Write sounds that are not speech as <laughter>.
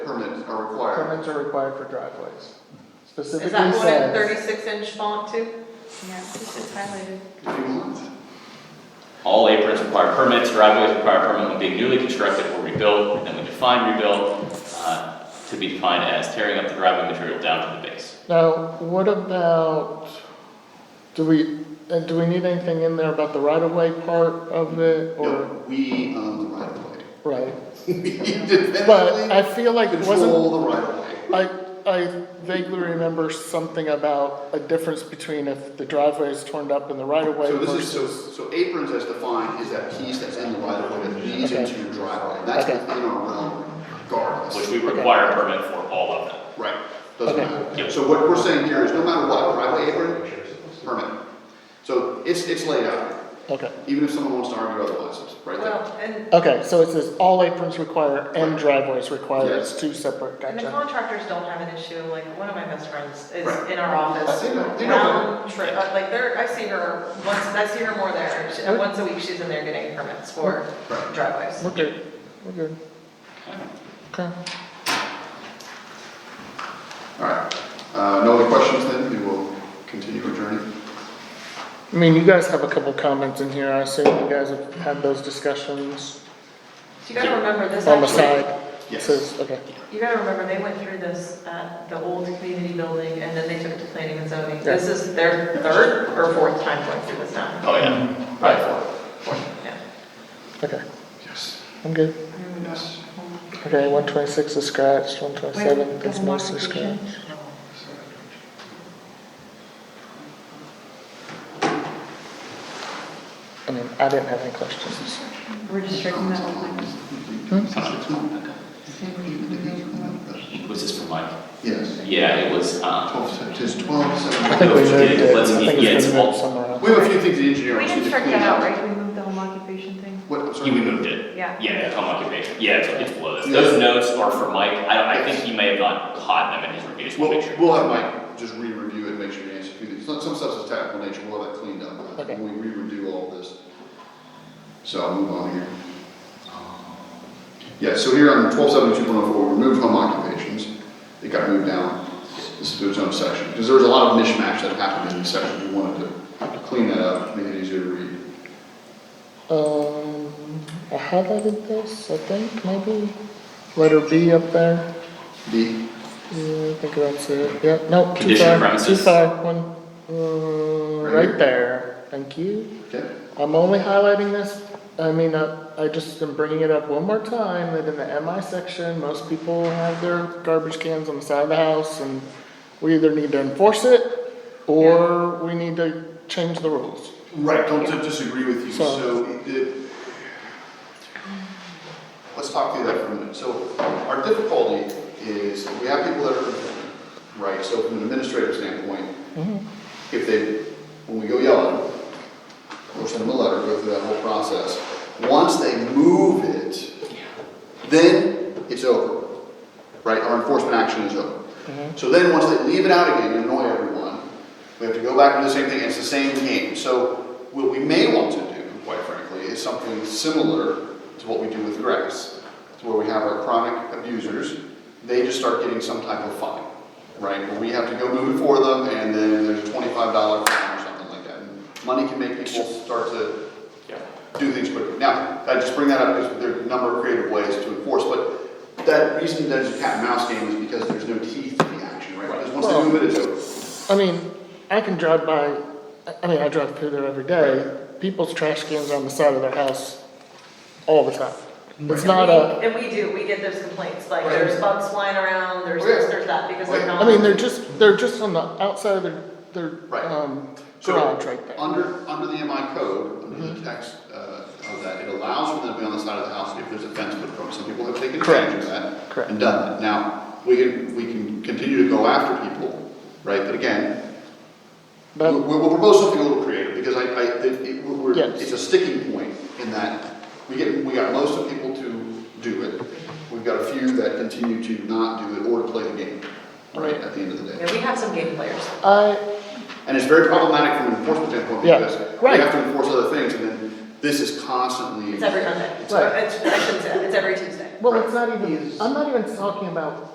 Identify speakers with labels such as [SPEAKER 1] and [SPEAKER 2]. [SPEAKER 1] permits are required.
[SPEAKER 2] Permits are required for driveways. Specifically
[SPEAKER 3] Is that one in
[SPEAKER 2] says,
[SPEAKER 3] thirty-six inch font too?
[SPEAKER 4] Yeah, this is highlighted.
[SPEAKER 1] If you want.
[SPEAKER 5] All aprons require permits, driveways require permit when being newly constructed or rebuilt, and then we define rebuilt, uh, to be defined as tearing up the driveway material down to the base.
[SPEAKER 2] now, what about, do we, uh, do we need anything in there about the right-of-way part of it, or,
[SPEAKER 1] No, we own the right of way. <laughs>
[SPEAKER 2] right?
[SPEAKER 1] We
[SPEAKER 2] But I
[SPEAKER 1] independently
[SPEAKER 2] feel like, it wasn't,
[SPEAKER 1] control the right of way.
[SPEAKER 2] I, I vaguely remember something about a difference between if the driveway is turned up in the right-of-way
[SPEAKER 1] So this is, so,
[SPEAKER 2] versus.
[SPEAKER 1] so aprons as defined is that piece that's in the right of way that leads
[SPEAKER 2] Okay.
[SPEAKER 1] into your driveway. That's
[SPEAKER 2] Okay.
[SPEAKER 1] within our realm
[SPEAKER 5] Which
[SPEAKER 1] regardless.
[SPEAKER 5] we require a permit for all of them.
[SPEAKER 1] Right, doesn't
[SPEAKER 2] Okay.
[SPEAKER 1] matter.
[SPEAKER 5] Yep.
[SPEAKER 1] So what we're saying here is no matter what, driveway apron, permit. So it's, it's laid out,
[SPEAKER 2] Okay,
[SPEAKER 1] even if someone wants to argue otherwise, it's right there.
[SPEAKER 3] Well, and,
[SPEAKER 2] okay, so it says all aprons require and driveways require,
[SPEAKER 1] Yes.
[SPEAKER 2] it's two separate,
[SPEAKER 3] and the
[SPEAKER 2] gotcha.
[SPEAKER 3] contractors don't have an issue, like, one of my best friends is
[SPEAKER 1] Right.
[SPEAKER 3] in our office.
[SPEAKER 1] I see that. They know
[SPEAKER 3] Round trip, uh, like, there, I see her once, I see her more there, She- uh, once a week she's in there getting permits for
[SPEAKER 1] Right.
[SPEAKER 3] driveways.
[SPEAKER 2] We're good, we're good, okay.
[SPEAKER 1] All right, uh, no other questions then, we will continue adjourning.
[SPEAKER 2] I mean, you guys have a couple comments in here, I assume you guys have had those discussions
[SPEAKER 3] So you gotta remember this
[SPEAKER 2] on the
[SPEAKER 3] actually,
[SPEAKER 2] side?
[SPEAKER 1] Yes.
[SPEAKER 2] Says- Okay,
[SPEAKER 3] you gotta remember, they went through this at the old community building, and then they took it to planning and zoning. This is their third or fourth time going through this now,
[SPEAKER 5] Oh, yeah, right.
[SPEAKER 3] yeah.
[SPEAKER 2] okay,
[SPEAKER 1] Yes,
[SPEAKER 2] I'm good.
[SPEAKER 1] yes.
[SPEAKER 2] Okay, one twenty-six is scratched, one twenty-seven
[SPEAKER 4] Wait,
[SPEAKER 2] is
[SPEAKER 4] double
[SPEAKER 2] mostly
[SPEAKER 4] modification.
[SPEAKER 2] scratched. I mean, I didn't have any questions.
[SPEAKER 4] We're just striking that whole thing.
[SPEAKER 5] Was this for Mike?
[SPEAKER 1] Yes,
[SPEAKER 5] Yeah, it was, um,
[SPEAKER 1] twelve, se- it is twelve,
[SPEAKER 2] I
[SPEAKER 1] seven.
[SPEAKER 2] think we moved it,
[SPEAKER 5] Let's-
[SPEAKER 2] I think
[SPEAKER 5] yeah,
[SPEAKER 2] it's
[SPEAKER 5] it's
[SPEAKER 2] been
[SPEAKER 5] all-
[SPEAKER 2] moved somewhere else.
[SPEAKER 1] We have a few things the engineer
[SPEAKER 4] We
[SPEAKER 1] wants you
[SPEAKER 4] didn't
[SPEAKER 1] to
[SPEAKER 4] strike
[SPEAKER 1] clean
[SPEAKER 4] that out,
[SPEAKER 1] up.
[SPEAKER 4] right? We moved the home occupation thing.
[SPEAKER 1] What, I'm sorry?
[SPEAKER 5] you moved it.
[SPEAKER 4] Yeah.
[SPEAKER 5] Yeah, home occupation, yeah, it's, it's below this. Those notes are for Mike, I don't, I think he may have not caught them in his review, just
[SPEAKER 1] We'll,
[SPEAKER 5] want to make sure.
[SPEAKER 1] we'll have Mike just re-review it, make sure you answer a few things, some some stuff's technical nature, we'll have that cleaned up,
[SPEAKER 2] Okay.
[SPEAKER 1] when we re-review all of this. So I'll move on here. Yeah, so here on twelve seventy-two point oh four, we removed home occupations, it got moved down, this is to its own section, because there was a lot of mishmash that happened in this section, we wanted to clean that up, make it easier to read.
[SPEAKER 2] Um, I highlighted this, I think, maybe, letter B up there,
[SPEAKER 1] D,
[SPEAKER 2] yeah, I think that's it, yeah, no, too
[SPEAKER 5] Condition of
[SPEAKER 2] far, too
[SPEAKER 5] premises.
[SPEAKER 2] far, one, uh,
[SPEAKER 1] Right here?
[SPEAKER 2] right there, thank you.
[SPEAKER 1] okay,
[SPEAKER 2] I'm only highlighting this, I mean, uh, I just am bringing it up one more time, that in the MI section, most people have their garbage cans on the side of the house, and we either need to enforce it, or we need to change the rules.
[SPEAKER 1] Right, don't di- disagree with you,
[SPEAKER 2] So-
[SPEAKER 1] so it- it- let's talk through that for a minute. So our difficulty is, we have people that are, complaining, right, so from an administrative standpoint, if they, when we go yell at them, or send them a letter, go through that whole process, once they move it, then it's over, right, our enforcement action is over. So then, once they leave it out again, you annoy everyone, we have to go back and do the same thing, it's the same game. So what we may want to do, quite frankly, is something similar to what we do with grass. It's where we have our chronic abusers, they just start getting some type of fine, right? Where we have to go move it for them, and then there's a twenty-five dollar fine or something like that. And Money can make people start to
[SPEAKER 5] Yeah.
[SPEAKER 1] do things quickly. Now, I just bring that up because there are a number of creative ways to enforce, but that reason that it's a cat and mouse game is because there's no teeth to the action, right? Because once they move it, it's over.
[SPEAKER 2] I mean, I can drive by, I- I mean, I drive through there every day, people's trash cans are on the side of their house all the time. It's not a,
[SPEAKER 3] And we do, we get those complaints, like
[SPEAKER 1] Right.
[SPEAKER 3] there's bugs flying around, there's
[SPEAKER 1] Oh, yeah.
[SPEAKER 3] this, there's that, because
[SPEAKER 1] Right.
[SPEAKER 3] they're not.
[SPEAKER 2] I mean, they're just, they're just on the outside of their,
[SPEAKER 1] Right.
[SPEAKER 2] their, um,
[SPEAKER 1] So,
[SPEAKER 2] garage right there. Mm-hmm.
[SPEAKER 1] Under, under the MI code, under the text uh, of that, it allows for them to be on the side of the house if there's a fence put up. Some people have taken advantage of that.
[SPEAKER 2] Correct.
[SPEAKER 1] And done that. Now, we can, we can continue to go after people, right? But again,
[SPEAKER 2] But-
[SPEAKER 1] we'll, we'll propose something a little creative because I, I, it- it, we're, we're-
[SPEAKER 2] Yes.
[SPEAKER 1] it's a sticking point in that we get, we got most of people to do it. We've got a few that continue to not do it or to play the game, right, at the end of the day.
[SPEAKER 3] Yeah, we have some game players.
[SPEAKER 2] I,
[SPEAKER 1] And it's very problematic from an enforcement standpoint
[SPEAKER 2] Yeah,
[SPEAKER 1] because we
[SPEAKER 2] right.
[SPEAKER 1] have to enforce other things and then this is constantly.
[SPEAKER 3] It's every Monday.
[SPEAKER 1] It's
[SPEAKER 3] Or
[SPEAKER 2] Right.
[SPEAKER 3] It's, I shouldn't say, that. it's every Tuesday.
[SPEAKER 2] well, it's not
[SPEAKER 1] Right.
[SPEAKER 2] even,
[SPEAKER 1] Is-
[SPEAKER 2] I'm not even talking about